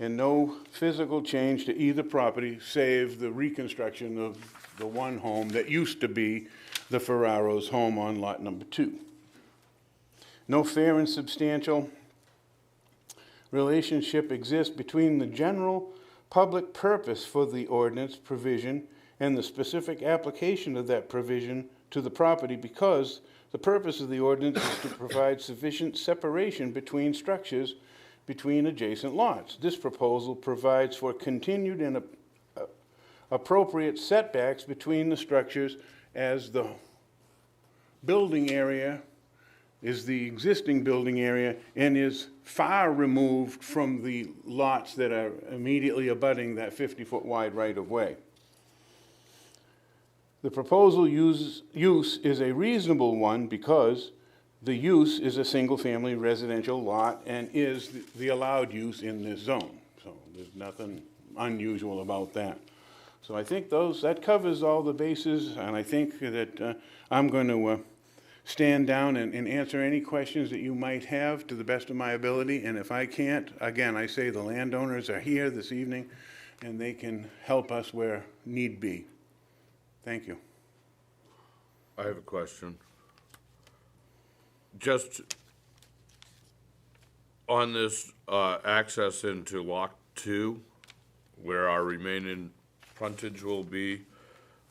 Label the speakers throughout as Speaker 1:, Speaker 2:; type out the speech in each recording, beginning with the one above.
Speaker 1: and no physical change to either property save the reconstruction of the one home that used to be the Ferraro's home on lot number two. No fair and substantial relationship exists between the general public purpose for the ordinance provision and the specific application of that provision to the property because the purpose of the ordinance is to provide sufficient separation between structures between adjacent lots. This proposal provides for continued and a- a- appropriate setbacks between the structures as the building area is the existing building area and is far removed from the lots that are immediately abutting that 50-foot wide right-of-way. The proposal use, use is a reasonable one because the use is a single-family residential lot and is the- the allowed use in this zone. So there's nothing unusual about that. So I think those, that covers all the bases, and I think that uh, I'm going to stand down and and answer any questions that you might have to the best of my ability. And if I can't, again, I say the landowners are here this evening, and they can help us where need be. Thank you.
Speaker 2: I have a question. Just on this uh, access into Lock Two, where our remaining frontage will be,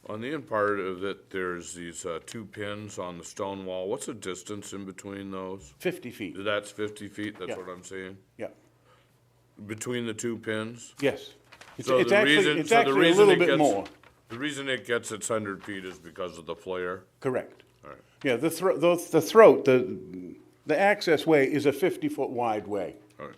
Speaker 2: on the end part of it, there's these uh, two pins on the stone wall. What's the distance in between those?
Speaker 1: 50 feet,
Speaker 2: That's 50 feet,
Speaker 1: Yeah.
Speaker 2: that's what I'm saying?
Speaker 1: yeah,
Speaker 2: Between the two pins?
Speaker 1: yes. It's
Speaker 2: So
Speaker 1: it's
Speaker 2: the
Speaker 1: actually,
Speaker 2: reason-
Speaker 1: it's
Speaker 2: so the
Speaker 1: actually a
Speaker 2: reason
Speaker 1: little
Speaker 2: it
Speaker 1: bit
Speaker 2: gets-
Speaker 1: more,
Speaker 2: The reason it gets its 100 feet is because of the flare?
Speaker 1: correct.
Speaker 2: All right.
Speaker 1: Yeah, the throat, the throat, the, the access way is a 50-foot wide way.
Speaker 2: All right.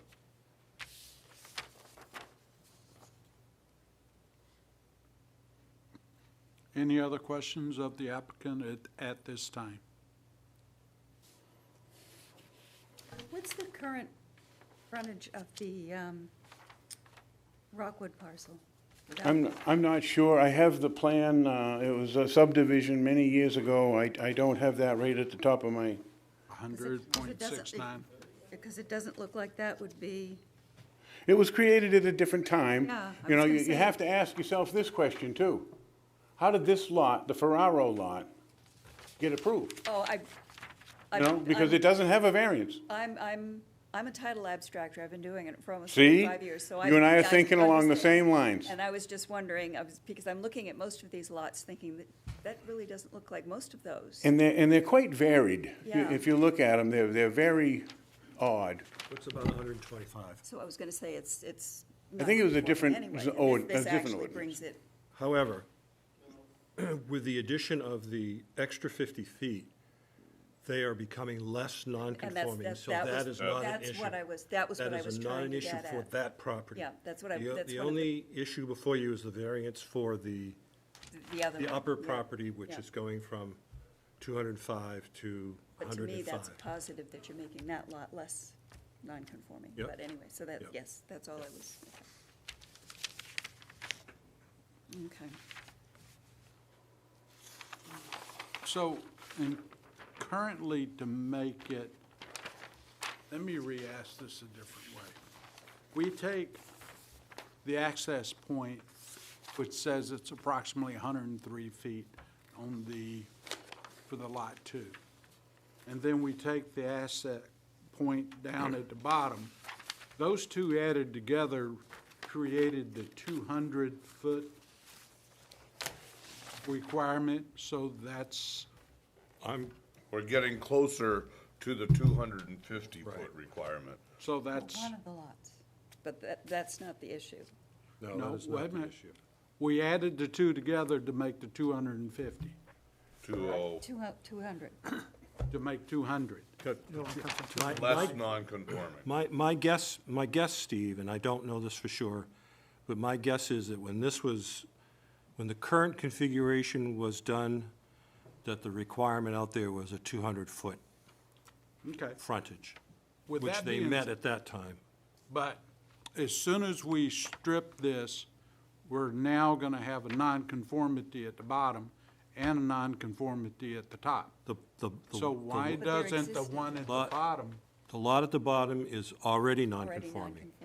Speaker 3: Any other questions of the applicant at, at this time?
Speaker 4: What's the current frontage of the um, Rockwood parcel? Without-
Speaker 1: I'm, I'm not sure. I have the plan, uh, it was a subdivision many years ago. I, I don't have that right at the top of my,
Speaker 4: Because it- because it doesn't-
Speaker 3: 100.69.
Speaker 4: Because it doesn't look like that would be,
Speaker 1: it was created at a different time.
Speaker 4: Yeah, I
Speaker 1: You know,
Speaker 4: was
Speaker 1: you,
Speaker 4: gonna
Speaker 1: you
Speaker 4: say.
Speaker 1: have to ask yourself this question too. How did this lot, the Ferraro lot, get approved?
Speaker 4: oh, I.
Speaker 1: You know, because it doesn't have a variance.
Speaker 4: I'm, I'm, I'm a title abstractor. I've been doing it for almost
Speaker 1: See?
Speaker 4: 25 years, so I.
Speaker 1: You and I are
Speaker 4: yeah,
Speaker 1: thinking along the
Speaker 4: understand.
Speaker 1: same lines.
Speaker 4: And I was just wondering, I was, because I'm looking at most of these lots thinking that, that really doesn't look like most of those.
Speaker 1: And they're, and they're quite varied. You-
Speaker 4: Yeah.
Speaker 1: If you look at them, they're, they're very odd.
Speaker 5: Looks about 125.
Speaker 4: So I was going to say it's, it's.
Speaker 1: I think it was a
Speaker 4: non-conforming
Speaker 1: different
Speaker 4: anyway,
Speaker 1: z-
Speaker 4: and this-
Speaker 1: ord- a
Speaker 4: This
Speaker 1: different
Speaker 4: actually
Speaker 1: ordinance.
Speaker 4: brings it
Speaker 5: However, with the addition of the extra 50 feet, they are becoming less
Speaker 4: And that's,
Speaker 5: non-conforming,
Speaker 4: that's,
Speaker 5: so
Speaker 4: that
Speaker 5: that
Speaker 4: was,
Speaker 5: is not an
Speaker 4: that's
Speaker 5: issue.
Speaker 4: what I was, that was what I was trying to get
Speaker 5: That is not an issue for
Speaker 4: at.
Speaker 5: that property.
Speaker 4: Yeah, that's what I-
Speaker 5: The o-
Speaker 4: that's
Speaker 5: The
Speaker 4: one of the-
Speaker 5: only issue before you is the variance for the,
Speaker 4: The other
Speaker 5: the
Speaker 4: one,
Speaker 5: upper
Speaker 4: yeah.
Speaker 5: property, which
Speaker 4: yeah.
Speaker 5: is going from 205 to
Speaker 4: But to me, that's
Speaker 5: 105.
Speaker 4: positive that you're making that lot less non-conforming.
Speaker 5: Yep.
Speaker 4: But anyway, so that,
Speaker 5: Yep.
Speaker 4: yes, that's all I was. Okay.
Speaker 3: So, and currently to make it, let me re-ask this a different way. We take the access point, which says it's approximately 103 feet on the, for the lot two. And then we take the asset point down at the bottom. Those two added together created the 200-foot requirement, so that's
Speaker 5: I'm,
Speaker 2: We're getting closer to the two hundred and fifty foot
Speaker 5: Right.
Speaker 2: requirement.
Speaker 3: So that's,
Speaker 4: One of the lots. But that, that's not the issue.
Speaker 5: no, Oh, that
Speaker 3: no,
Speaker 5: is
Speaker 3: wait
Speaker 5: not
Speaker 3: a
Speaker 5: the
Speaker 3: minute.
Speaker 5: issue.
Speaker 3: We added the two together to make the two hundred and fifty,
Speaker 2: Two oh,
Speaker 4: Two, two hundred.
Speaker 3: to make two hundred.
Speaker 5: My- my-
Speaker 2: less non-conforming.
Speaker 5: My, my guess, my guess, Steve, and I don't know this for sure, but my guess is that when this was, when the current configuration was done, that the requirement out there was a 200-foot
Speaker 3: Okay,
Speaker 5: frontage,
Speaker 3: With
Speaker 5: which
Speaker 3: that
Speaker 5: they
Speaker 3: being
Speaker 5: met
Speaker 3: said-
Speaker 5: at that time.
Speaker 3: but as soon as we strip this, we're now gonna have a nonconformity at the bottom and a nonconformity at the top.
Speaker 5: The, the,
Speaker 3: So
Speaker 5: the- the-
Speaker 3: why
Speaker 4: But they're
Speaker 3: doesn't the
Speaker 4: existing.
Speaker 3: one at the
Speaker 5: Lot-
Speaker 3: bottom?
Speaker 5: The lot at the bottom is already
Speaker 4: Already
Speaker 5: non-conforming.